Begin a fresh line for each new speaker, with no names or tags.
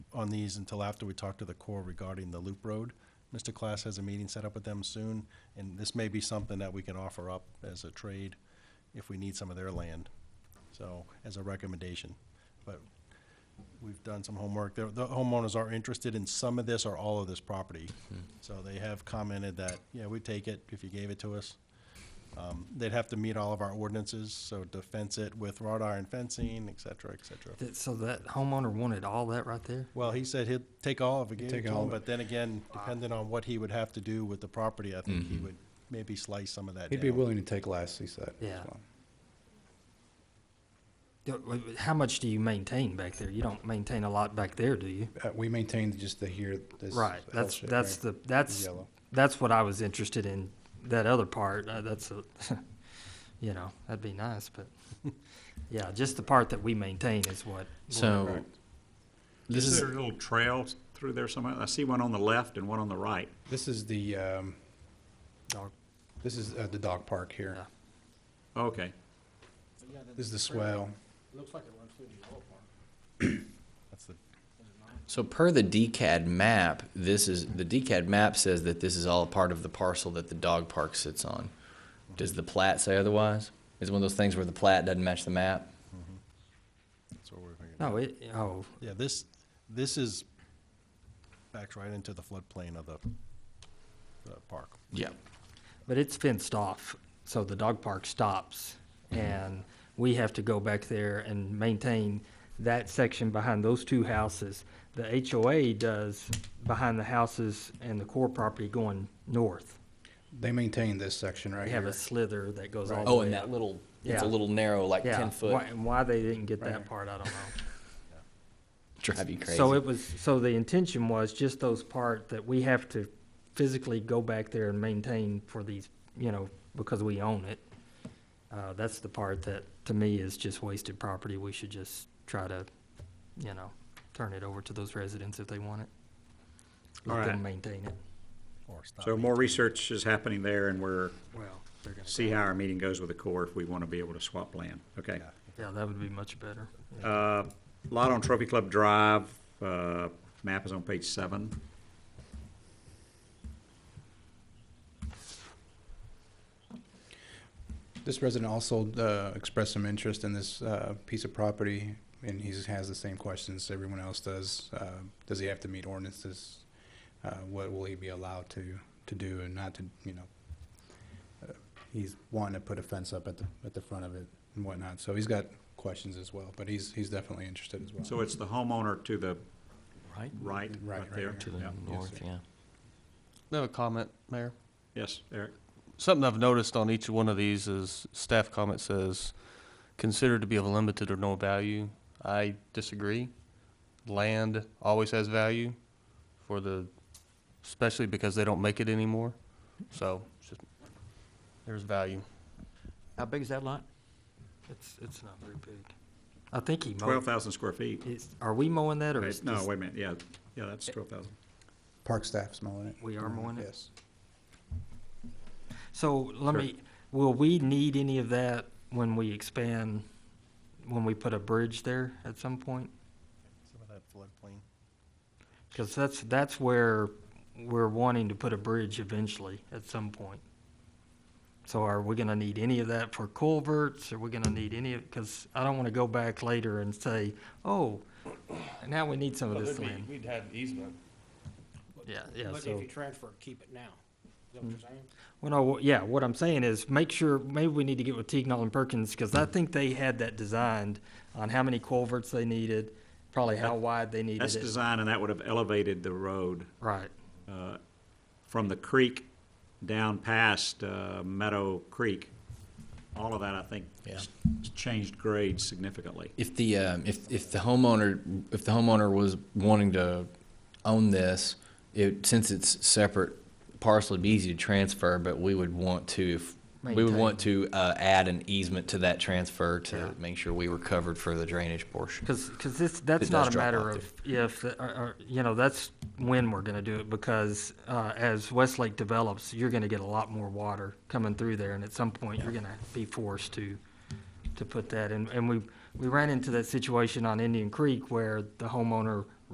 on these until after we talk to the Corps regarding the loop road. Mr. Class has a meeting set up with them soon, and this may be something that we can offer up as a trade if we need some of their land, so, as a recommendation. But we've done some homework. The the homeowners are interested in some of this or all of this property. So they have commented that, yeah, we'd take it if you gave it to us. Um, They'd have to meet all of our ordinances, so to fence it with wrought iron fencing, et cetera, et cetera.
That, so that homeowner wanted all that right there?
Well, he said he'd take all if it gave it
take
to
all
him,
of it.
but then again, depending on what he would have to do with the property, I think he would maybe slice some of that down.
Mm-hmm. He'd be willing to take less, he said.
Yeah.
so.
Yeah, wait, wait, How much do you maintain back there? You don't maintain a lot back there, do you?
Uh, we maintained just the here, this.
Right,
L
that's,
shape,
that's
right?
the, that's,
Yellow.
that's what I was interested in, that other part, uh, that's a, you know, that'd be nice, but, yeah, just the part that we maintain is what.
So,
Correct.
this
Is
is,
there a little trail through there somewhere? I see one on the left and one on the right.
This is the, um,
Dog-
this is, uh, the dog park here.
Yeah.
Okay.
This is the swell.
That's the-
so per the DCAD map, this is, the DCAD map says that this is all part of the parcel that the dog park sits on. Does the plat say otherwise? Is it one of those things where the plat doesn't match the map?
That's what we're thinking.
No, it, oh,
Yeah, this, this is, backs right into the floodplain of the, the park.
Yeah.
but it's fenced off, so the dog park stops,
Mm-hmm.
and we have to go back there and maintain that section behind those two houses. The HOA does behind the houses and the core property going north.
They maintain this section right
They
here.
have a slither that goes all the way.
Oh, and that little, it's
Yeah.
a little narrow, like
Yeah,
ten
why-
foot,
And why they didn't get
Right here.
that part, I don't know.
drive you crazy.
So it was, so the intention was just those part that we have to physically go back there and maintain for these, you know, because we own it. Uh, that's the part that, to me, is just wasted property. We should just try to, you know, turn it over to those residents if they want it. Let
Alright.
them maintain it.
Or stop.
So more research is happening there and we're,
Well, they're gonna.
see how our meeting goes with the Corps if we want to be able to swap land. Okay.
Yeah, that would be much better. Yeah.
Uh, Lot on Trophy Club Drive, uh, map is on page seven.
This resident also uh, expressed some interest in this uh, piece of property, and he has the same questions everyone else does. Uh, Does he have to meet ordinances? Uh, What will he be allowed to, to do and not to, you know? Uh, He's wanting to put a fence up at the, at the front of it and whatnot, so he's got questions as well, but he's, he's definitely interested as well.
So it's the homeowner to the
Right?
right,
Right,
right
right
there.
here.
To the
Yeah.
north, yeah.
I have a comment, Mayor.
Yes, Eric.
Something I've noticed on each one of these is staff comment says, considered to be of limited or no value. I disagree. Land always has value for the, especially because they don't make it anymore. So it's just, there's value.
How big is that lot?
It's, it's not very big. I think he
Twelve
mowed,
thousand square feet.
is, are we mowing that or
Okay,
Oh. is
No,
this-
wait a minute. Yeah, yeah, that's twelve thousand.
Park staff's mowing it.
We are mowing it?
Yes.
So let
Sure.
me, will we need any of that when we expand, when we put a bridge there at some point?
Some of that floodplain.
Because that's, that's where we're wanting to put a bridge eventually at some point. So are we gonna need any of that for culverts? Are we gonna need any of, because I don't want to go back later and say, oh, now we need some of this land.
We'd have easement.
Yeah, yeah,
But
so.
if you transfer, keep it now. Is that what you're saying?
Well, no, wh- yeah, what I'm saying is make sure, maybe we need to get with Teagnall and Perkins, because I think they had that designed on how many culverts they needed, probably how wide they needed
That's
it.
design and that would have elevated the road.
Right,
uh, from the creek down past uh, Meadow Creek, all of that, I think,
Yeah.
s- changed grade significantly.
If the, um, if, if the homeowner, if the homeowner was wanting to own this, it, since it's separate parcel, it'd be easy to transfer, but we would want to, if, we would want to, uh, add an easement to that transfer
Yeah.
to make sure we were covered for the drainage portion.
because, this, that's
It does
not a
drop
matter
off
of if, the- or, or, you know, that's when we're gonna do it, because, uh, as Westlake develops, you're gonna get a lot more water coming through there, and at some point, you're gonna be forced to, to put that in. And we, we ran into that situation on Indian Creek where the homeowner